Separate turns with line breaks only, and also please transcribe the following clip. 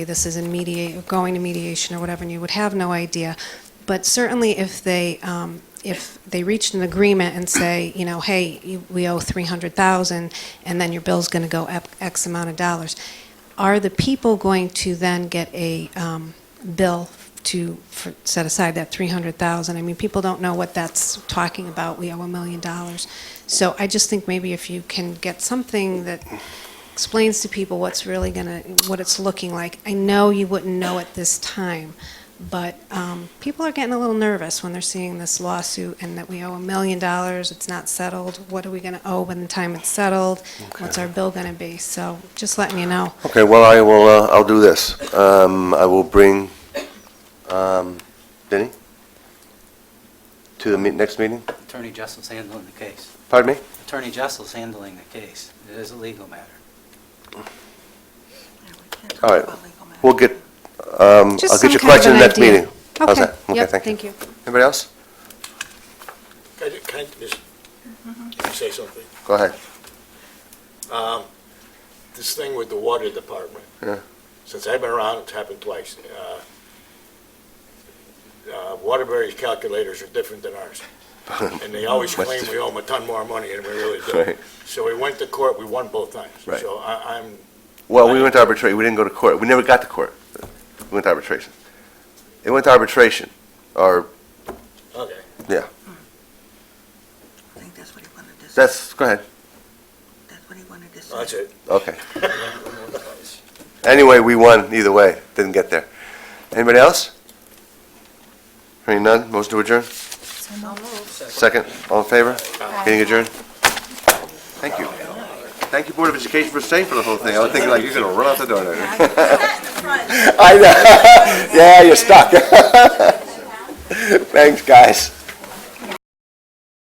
this is in mediate, going to mediation or whatever, and you would have no idea. But certainly if they, um, if they reached an agreement and say, you know, hey, you- we owe 300,000, and then your bill's going to go up X amount of dollars, are the people going to then get a um, bill to for- set aside that 300,000? I mean, people don't know what that's talking about, we owe a million dollars. So I just think maybe if you can get something that explains to people what's really gonna, what it's looking like. I know you wouldn't know at this time, but um, people are getting a little nervous when they're seeing this lawsuit and that we owe a million dollars, it's not settled, what are we gonna owe when the time it's settled? What's our bill gonna be? So just letting you know.
Okay, well, I will, uh, I'll do this. Um, I will bring, um, Denny to the meet- next meeting.
Attorney Jessel's handling the case.
Pardon me?
Attorney Jessel's handling the case. It is a legal matter.
All right. We'll get, um,
Just some
I'll get your
kind of
question
an
in the next
idea.
meeting. How's that?
Okay, yep,
thank you.
thank you.
Anybody else?
Can I ju- can I just can
Mm-hmm.
I say something?
Go ahead.
Um, This thing with the water department.
Yeah.
Since I've been around, it's happened twice. Uh, uh, Waterbury's calculators are different than ours. And they always
Much
claim we owe them a ton more money than we really do.
Right.
So we went to court, we won both times.
Right.
So I- I'm,
Well, we went to arbitration, we didn't go to court, we never got to court. We went to arbitration. It went to arbitration, or,
okay.
I think that's what he wanted to say.
that's, go ahead,
That's what he wanted to say.
That's it.
okay. Anyway, we won either way, didn't get there. Anybody else? Hearing none, motion to adjourn? Second, all in favor? Meeting adjourned? Thank you. Thank you, Board of Education, for staying for the whole thing. I was thinking like, you're gonna run out the door there. I know, yeah, you're stuck. Thanks, guys.